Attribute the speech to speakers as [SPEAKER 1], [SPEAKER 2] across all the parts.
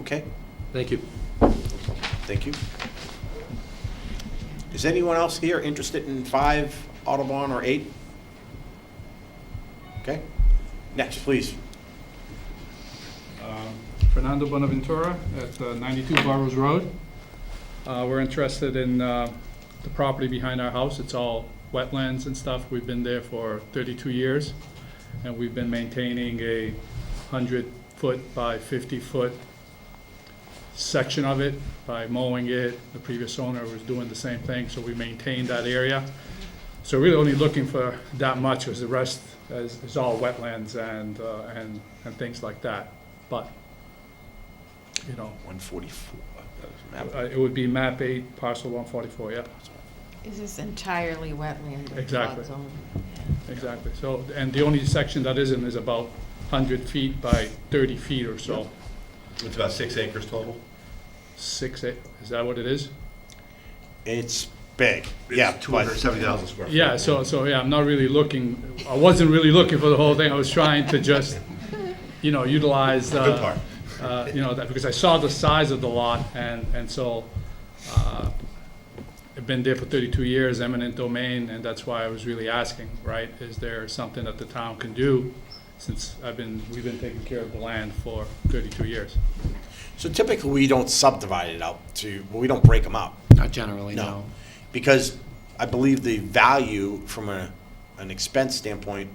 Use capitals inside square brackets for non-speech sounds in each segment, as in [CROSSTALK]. [SPEAKER 1] Okay,
[SPEAKER 2] Thank you.
[SPEAKER 1] thank you. Is anyone else here interested in five Audubon or eight? Okay, next, please.
[SPEAKER 3] Um, Fernando Bonaventura at uh, 92 Burrows Road. Uh, We're interested in uh, the property behind our house. It's all wetlands and stuff. We've been there for 32 years, and we've been maintaining a 100-foot by 50-foot section of it by mowing it. The previous owner was doing the same thing, so we maintained that area. So really only looking for that much, because the rest is, is all wetlands and, uh, and, and things like that. But, you know,
[SPEAKER 1] One forty-four.
[SPEAKER 3] uh, it would be map eight, parcel one forty-four, yeah,
[SPEAKER 4] Is this entirely wetland? or flood
[SPEAKER 3] Exactly.
[SPEAKER 4] zone?
[SPEAKER 3] exactly. So, and the only section that isn't is about hundred feet by thirty feet or so.
[SPEAKER 5] It's about six acres total.
[SPEAKER 3] Six, eight, is that what it is?
[SPEAKER 1] It's big, yeah.
[SPEAKER 5] Two hundred
[SPEAKER 1] but-
[SPEAKER 5] seventy thousand square. feet.
[SPEAKER 3] Yeah, so, so, yeah, I'm not really looking, I wasn't really looking for the whole thing, I was trying to just, you know, utilize, uh.
[SPEAKER 5] Good part.
[SPEAKER 3] uh, you know, that, because I saw the size of the lot, and, and so, uh, I've been there for thirty-two years, eminent domain, and that's why I was really asking, right? Is there something that the town can do, since I've been, we've been taking care of the land for thirty-two years?
[SPEAKER 1] So typically, we don't subdivide it out to, we don't break them up.
[SPEAKER 2] Not generally,
[SPEAKER 1] No,
[SPEAKER 2] no.
[SPEAKER 1] because I believe the value from a, an expense standpoint,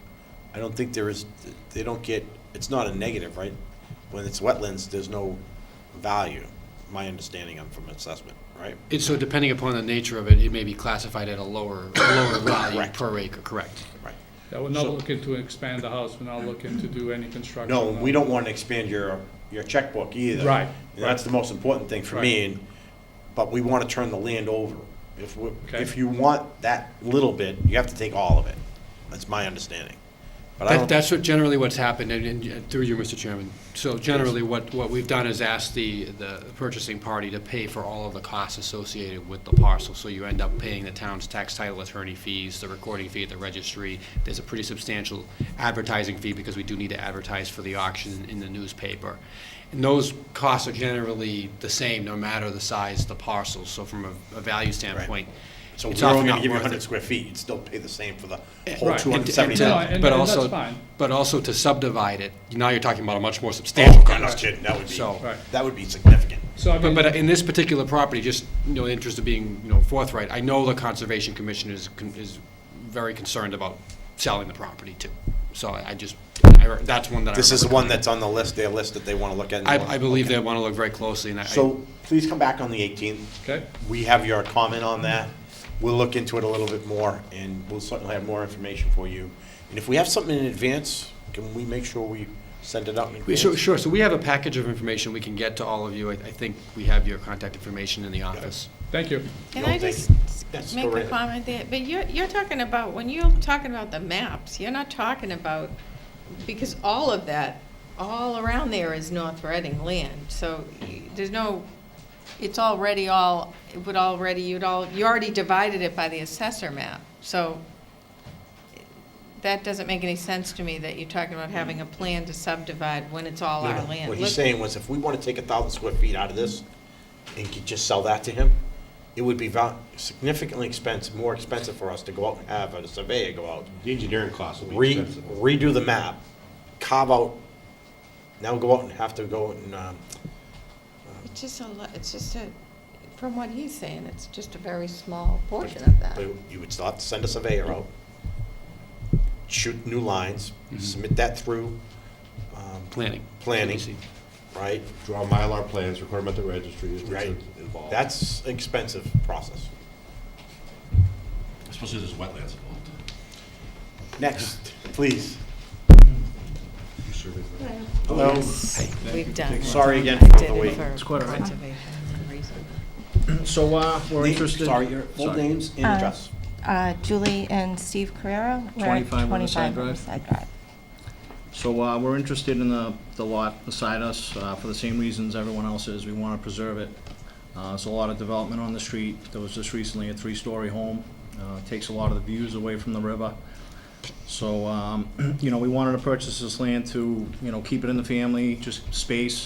[SPEAKER 1] I don't think there is, they don't get, it's not a negative, right? When it's wetlands, there's no value, my understanding of from assessment, right?
[SPEAKER 2] It- So depending upon the nature of it, it may be classified at a lower, lower
[SPEAKER 1] [COUGHS]
[SPEAKER 2] value
[SPEAKER 1] Correct.
[SPEAKER 2] per acre, correct?
[SPEAKER 1] Right.
[SPEAKER 3] Yeah, we're not
[SPEAKER 1] So-
[SPEAKER 3] looking to expand the house, we're not looking to do any construction.
[SPEAKER 1] No, we don't want to expand your, your checkbook either.
[SPEAKER 3] Right,
[SPEAKER 1] And that's the most important thing for me, and, but we want to turn the land over. If we,
[SPEAKER 3] Okay.
[SPEAKER 1] if you want that little bit, you have to take all of it. That's my understanding. But I
[SPEAKER 2] That,
[SPEAKER 1] don't.
[SPEAKER 2] that's what generally what's happened, and, and through you, Mr. Chairman. So generally, what, what we've done is asked the, the purchasing party to pay for all of the costs associated with the parcel. So you end up paying the town's tax title attorney fees, the recording fee at the registry. There's a pretty substantial advertising fee because we do need to advertise for the auction in the newspaper. And those costs are generally the same, no matter the size of the parcel. So from a, a value standpoint,
[SPEAKER 1] So
[SPEAKER 2] it's
[SPEAKER 1] we're
[SPEAKER 2] often
[SPEAKER 1] only
[SPEAKER 2] not
[SPEAKER 1] gonna give you
[SPEAKER 2] worth it.
[SPEAKER 1] hundred square feet, you'd still pay the same for the
[SPEAKER 2] Eh,
[SPEAKER 1] whole
[SPEAKER 3] right.
[SPEAKER 1] two
[SPEAKER 2] And
[SPEAKER 1] hundred
[SPEAKER 2] to-
[SPEAKER 1] seventy
[SPEAKER 2] and to-
[SPEAKER 3] No,
[SPEAKER 1] thousand.
[SPEAKER 3] and-
[SPEAKER 2] But
[SPEAKER 3] and
[SPEAKER 2] also,
[SPEAKER 3] that's fine.
[SPEAKER 2] but also to subdivide it, now you're talking about a much more substantial cost.
[SPEAKER 1] Oh, That would
[SPEAKER 2] So-
[SPEAKER 1] be,
[SPEAKER 3] Right.
[SPEAKER 1] that would be significant.
[SPEAKER 3] So I
[SPEAKER 2] But,
[SPEAKER 3] mean,
[SPEAKER 2] but in this particular property, just, you know, in the interest of being, you know, forthright, I know the Conservation Commission is, con- is very concerned about selling the property too. So I I just, I re- that's one that I
[SPEAKER 1] This is the
[SPEAKER 2] remember
[SPEAKER 1] one that's on the list, their list that they wanna look at.
[SPEAKER 2] coming. I, I believe they want to look very closely and I.
[SPEAKER 1] So please come back on the eighteenth.
[SPEAKER 3] okay,
[SPEAKER 1] We have your comment on that. We'll look into it a little bit more and we'll certainly have more information for you. And if we have something in advance, can we make sure we send it out in
[SPEAKER 2] We-
[SPEAKER 1] advance?
[SPEAKER 2] Sure, sure, so we have a package of information we can get to all of you. I, I think we have your contact information in the office.
[SPEAKER 3] thank you.
[SPEAKER 4] Can
[SPEAKER 1] No,
[SPEAKER 4] I
[SPEAKER 1] thank
[SPEAKER 4] just
[SPEAKER 1] you.
[SPEAKER 4] s-
[SPEAKER 1] Yes,
[SPEAKER 4] make
[SPEAKER 1] go
[SPEAKER 4] a
[SPEAKER 1] right ahead.
[SPEAKER 4] comment there? But you're, you're talking about, when you're talking about the maps, you're not talking about, because all of that, all around there is North Reading land, so y- there's no, it's already all, it would already, you'd all, you already divided it by the assessor map, so that doesn't make any sense to me that you're talking about having a plan to subdivide when it's all
[SPEAKER 1] No,
[SPEAKER 4] our
[SPEAKER 1] no.
[SPEAKER 4] land.
[SPEAKER 1] What
[SPEAKER 4] Look-
[SPEAKER 1] he's saying was if we wanna take a thousand square feet out of this and could just sell that to him, it would be val- significantly expensive, more expensive for us to go out and have a surveyor go out,
[SPEAKER 5] The engineering costs will be
[SPEAKER 1] re,
[SPEAKER 5] expensive.
[SPEAKER 1] redo the map, carve out, now go out and have to go and, um,
[SPEAKER 4] It's just a, lo- it's just a, from what he's saying, it's just a very small portion of that.
[SPEAKER 1] but you would still have to send a surveyor out, shoot new lines, submit that through, um,
[SPEAKER 2] Planning.
[SPEAKER 1] Planning.
[SPEAKER 2] CDC.
[SPEAKER 1] right?
[SPEAKER 5] Draw Mylar plans, record them at the registry, is what's
[SPEAKER 1] Right.
[SPEAKER 5] involved.
[SPEAKER 1] That's expensive process.
[SPEAKER 5] Especially if there's wetlands involved.
[SPEAKER 1] Next, please.
[SPEAKER 5] You surveyed that?
[SPEAKER 1] Hello?
[SPEAKER 4] We've done.
[SPEAKER 1] Sorry again for the wait.
[SPEAKER 4] It's
[SPEAKER 6] quite all right.
[SPEAKER 4] reason.
[SPEAKER 6] So uh, we're
[SPEAKER 1] Name-
[SPEAKER 6] interested.
[SPEAKER 1] Sorry, your full
[SPEAKER 6] Sorry.
[SPEAKER 1] names and
[SPEAKER 7] Uh,
[SPEAKER 1] address.
[SPEAKER 7] Uh, Julie and Steve Carrera. We're at
[SPEAKER 6] 25 Riverside
[SPEAKER 7] 25
[SPEAKER 6] Drive.
[SPEAKER 7] Riverside Drive.
[SPEAKER 6] So uh, we're interested in the the lot beside us uh, for the same reasons everyone else is. We want to preserve it. Uh, There's a lot of development on the street. There was just recently a three-story home. Uh, Takes a lot of the views away from the river. [CLEARS THROAT] So, um, you know, we wanted to purchase this land to, you know, keep it in the family, just space,